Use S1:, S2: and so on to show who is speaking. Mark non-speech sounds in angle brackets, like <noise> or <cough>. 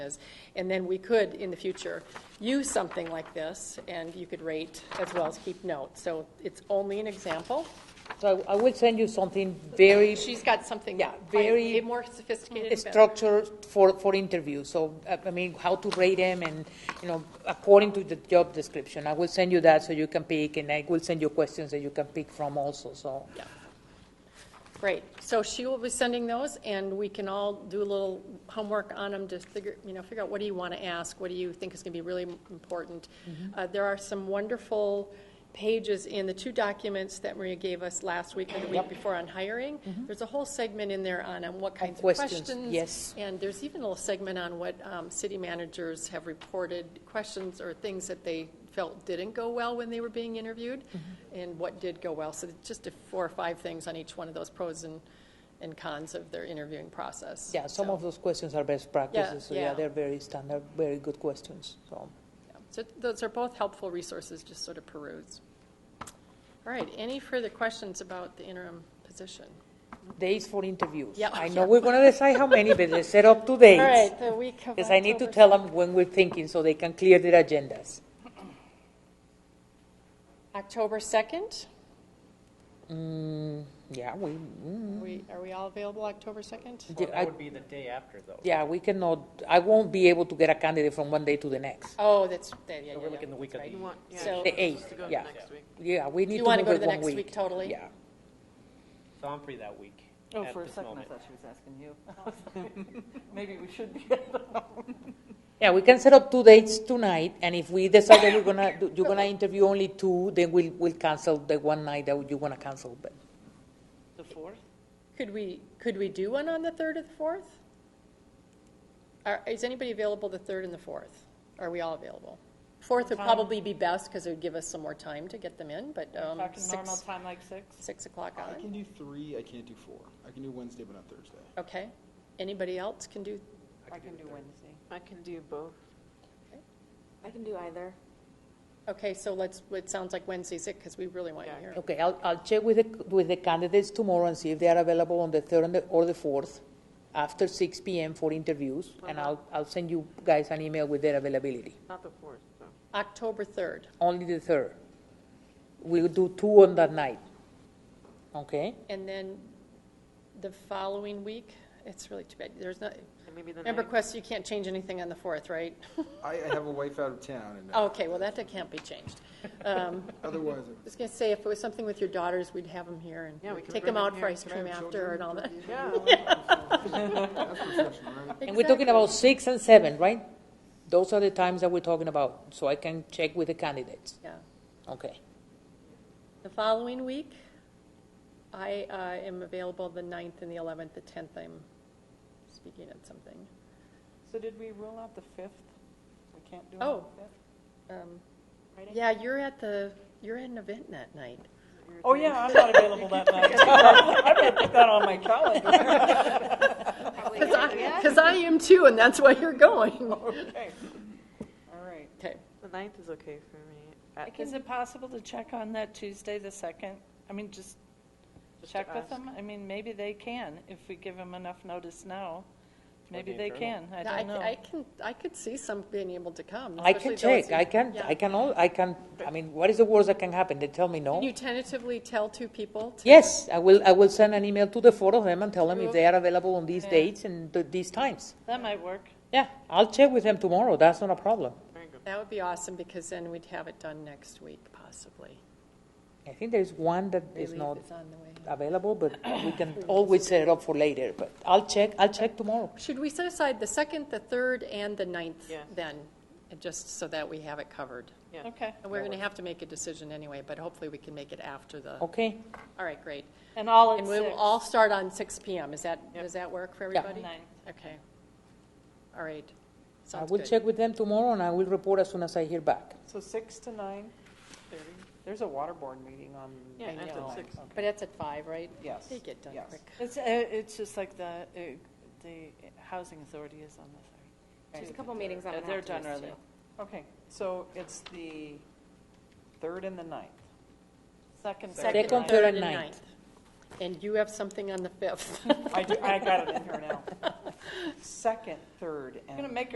S1: is. And then we could, in the future, use something like this, and you could rate as well as keep notes. So it's only an example.
S2: So I I will send you something very
S1: She's got something.
S2: Yeah,
S1: quite-
S2: very
S1: a more sophisticated. event.
S2: structured for, for interviews. So, uh, I mean, how to rate them and, you know, according to the job description. I will send you that so you can pick, and I will send you questions that you can pick from also, so.
S1: Yeah. Great. So she will be sending those, and we can all do a little homework on them to figure, you know, figure out what do you want to ask? What do you think is going to be really important?
S2: Mm-hmm.
S1: Uh, There are some wonderful pages in the two documents that Maria gave us last week or the week before on hiring. There's a whole segment in there on um, what kinds of
S2: Mm-hmm. questions,
S1: questions.
S2: yes.
S1: And there's even a little segment on what um, city managers have reported, questions or things that they felt didn't go well when they were being interviewed,
S2: Mm-hmm.
S1: and what did go well. So it's just a four or five things on each one of those pros and, and cons of their interviewing process.
S2: Yeah, some
S1: So-
S2: of those questions are best practices, so
S1: yeah.
S2: yeah, they're very standard, very good questions, so.
S1: yeah. So those are both helpful resources, just sort of peruse. All right, any further questions about the interim position?
S2: Days for interviews.
S1: Yeah.
S2: I know we're gonna decide how many, but let's set up two
S1: <laughs>
S2: days.
S1: All right, the week of
S2: Because I need to
S1: October
S2: tell them when we're thinking, so they can clear their agendas.
S1: October 2nd?
S2: Mm, yeah, we, mm,
S1: We, are we all available October 2nd?
S3: Well,
S2: Yeah, I-
S3: that would be the day after, though.
S2: yeah, we cannot, I won't be able to get a candidate from one day to the next.
S1: Oh, that's, yeah, yeah, yeah.
S3: So we're looking
S1: yeah.
S3: the week of
S1: Right.
S3: the,
S4: You want, yeah.
S1: So-
S2: The
S4: it's supposed
S2: eighth,
S4: Oh, to go
S2: yeah.
S4: next week.
S2: Yeah, we need
S1: You
S2: to
S1: wanna
S2: move
S1: go to
S2: it
S1: the
S2: one
S1: next
S2: week.
S1: week totally?
S2: Yeah.
S3: so I'm free that week.
S4: Oh,
S3: at
S4: for a
S3: this
S4: second, I
S3: moment.
S4: thought she was asking <laughs> you. Maybe we should be at the home.
S2: Yeah, we can set up two dates tonight, and if we decide that we're gonna, do- you're
S1: <laughs>
S2: gonna interview only two, then we'll, we'll cancel the one night that you wanna cancel, but.
S4: The fourth?
S1: Could we, could we do one on the 3rd or the 4th? Are- Is anybody available the 3rd and the 4th? Are we all available? 4th would probably be best because it would give us some more time to get them in, but um,
S4: Back to normal
S1: six,
S4: time, like six?
S1: 6 o'clock
S5: I can
S1: on.
S5: do three, I can't do four. I can do Wednesday, but not Thursday.
S1: Okay. Anybody else can do,
S4: I can do Wednesday. I can do both.
S6: I can do either.
S1: okay, so let's, it sounds like Wednesday's it because we really want you
S4: Yeah.
S1: here.
S2: Okay, I'll, I'll check with the, with the candidates tomorrow and see if they are available on the third and the, or the fourth, after six PM for interviews, and
S1: Uh-huh.
S2: I'll, I'll send you guys an email with their availability.
S4: Not the fourth, so.
S1: October 3rd.
S2: Only the third. We'll do two on that night. Okay?
S1: And then the following week, it's really too bad. There's not,
S4: And maybe the
S1: remember,
S4: ninth?
S1: Quest, you can't change anything on the 4th, right? <laughs>
S5: I I have a wife out of town, and
S1: Okay, well, that can't be changed. Um,
S5: otherwise,
S1: I was going to say, if it was something with your daughters, we'd have them here
S4: Yeah, we
S1: and
S4: could
S1: take
S4: bring
S1: them out
S4: 'em
S1: for
S4: here.
S1: ice cream after and all that.
S4: <laughs> Yeah,
S5: that's professional, right?
S2: And we're talking about six and seven, right? Those are the times that we're talking about, so I can check with the candidates.
S1: Exactly, Yeah.
S2: Okay.
S1: The following week, I uh, am available the 9th and the 11th, the 10th, I'm speaking at something.
S4: so did we rule out the fifth? We can't do it
S1: Oh.
S4: on the
S1: Um,
S4: fifth?
S1: Yeah, you're at the, you're at an event that night.
S4: <laughs> Oh, yeah, I'm not available <laughs> that night. I better put that on my <laughs> calendar. Oh,
S1: Because I am too, and that's why you're
S4: <laughs>
S1: going.
S4: Okay. All right.
S1: Okay.
S7: The ninth is okay for me. Uh,
S8: Is it possible to check on that Tuesday, the 2nd? I mean, just
S7: Just to
S8: check with
S7: ask.
S8: them? I mean, maybe they can, if we give them enough notice now. Maybe
S3: the
S8: they
S3: internal.
S8: can, I don't know.
S1: I can, I could see some being able to come.
S2: I can
S1: especially those
S2: check,
S1: who-
S2: I can,
S1: Yeah.
S2: I can all, I can, I mean, what is the worst that can happen? They tell me
S1: Can
S2: no?
S1: you tentatively tell two people? to-
S2: Yes, I will, I will send an email to the four of them and tell them if they are available on these dates and th- these times.
S8: That might work.
S2: Yeah, I'll check with them tomorrow, that's not a problem.
S1: That would be awesome, because then we'd have it done next week, possibly.
S2: I think there's one that is
S1: Relief
S2: not
S1: is on the way.
S2: available, but we can always set it up for later, but I'll check, I'll check tomorrow.
S1: Should we set aside the second, the third, and the ninth
S7: Yes.
S1: then, and just so that we have it covered?
S7: Yeah.
S8: Okay.
S1: And we're going to have to make a decision anyway, but hopefully we can make it after the, all
S2: Okay,
S1: right, great.
S8: And all at
S1: And we will
S8: 6.
S1: all start on six PM, is that,
S7: Yep.
S1: does that work for
S2: Yeah.
S1: everybody?
S8: Ninth.
S1: Okay. All right.
S2: I
S1: Sounds
S2: will
S1: good.
S2: check with them tomorrow and I will report as soon as I hear back.
S4: So six to nine thirty. There's a water board meeting on.
S7: Yeah,
S1: I
S7: that's
S1: know.
S7: at six.
S1: But that's at five, right?
S4: Yes.
S1: They get done
S4: Yes.
S1: quick.
S8: It's, uh, it's just like the, uh, the housing authority is on the 3rd.
S6: There's a couple meetings I'm
S8: Uh,
S6: gonna
S8: They're
S6: have to
S8: done
S6: miss
S8: early.
S6: too.
S4: Okay, so it's the third and the ninth.
S8: Second,
S1: Second,
S2: Second,
S1: third,
S2: third,
S1: and
S2: and
S1: ninth. And you have
S4: <laughs>
S1: something on the fifth. <laughs>
S4: I do, I got it in here now. Second, third, and.
S8: I'm going to make